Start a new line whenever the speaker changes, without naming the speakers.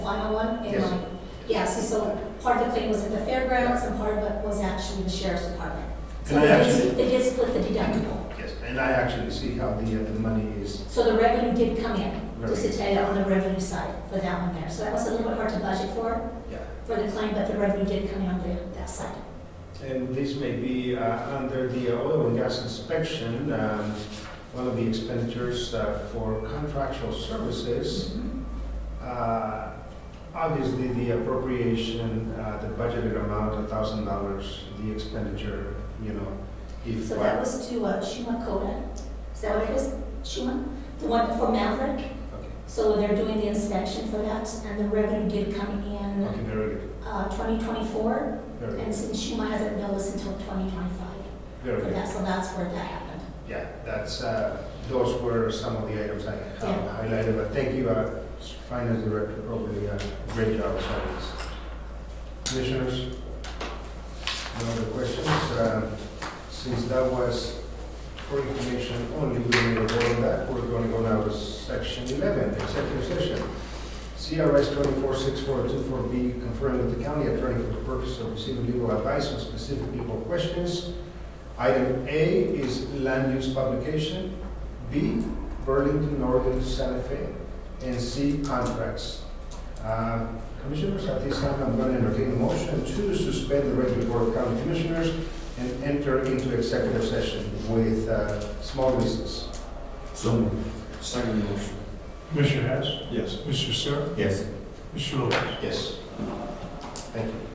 101 in
Yes.
my, yeah, so, so part of the claim was at the fairgrounds and part of it was actually the sheriff's department. So
And I
they
actually-
did, they did split the deductible.
Yes, and I actually see how the, uh, the money is,
So the revenue did come in, just to
Right.
tell you on the revenue side for that one there. So that was a little bit hard to budget for,
yeah.
for the claim, but the revenue did come in on the, that side.
And this may be uh, under the oil and gas inspection, um, one of the expenditures uh, for contractual services. Uh, Obviously, the appropriation, uh, the budgeted amount, $1,000, the expenditure, you know, if.
So that was to uh, Shuma Coda. Is that what it is? Shuma? The one for Maverick?
Okay,
So they're doing the inspection for that and the revenue did come in,
okay, very good,
uh, 2024.
very good,
And since Shuma hasn't billed us until 2025,
very
for
good.
that, so that's where that happened.
Yeah, that's, uh, those were some of the items I have
Yeah.
highlighted, but thank you, uh, Finance Director, probably a great job as always. Commissioners, no other questions? Um, Since that was for information only, we need to vote on that. We're going to go now to section 11, executive session. CRS 246424B, confirmed with the county attorney for the purpose of receiving legal advice on specific legal questions Item A is land use publication, B, Burlington Northern Santa Fe, and C, contracts. Uh, Commissioners, at this time, I'm going to entertain a motion to suspend the regular Board of County Commissioners and enter into executive session with uh, small recess.
So Second motion.
Mr. Hess,
Yes.
Mr. Sir,
Yes.
Mr. Lopez.
Yes. Thank you.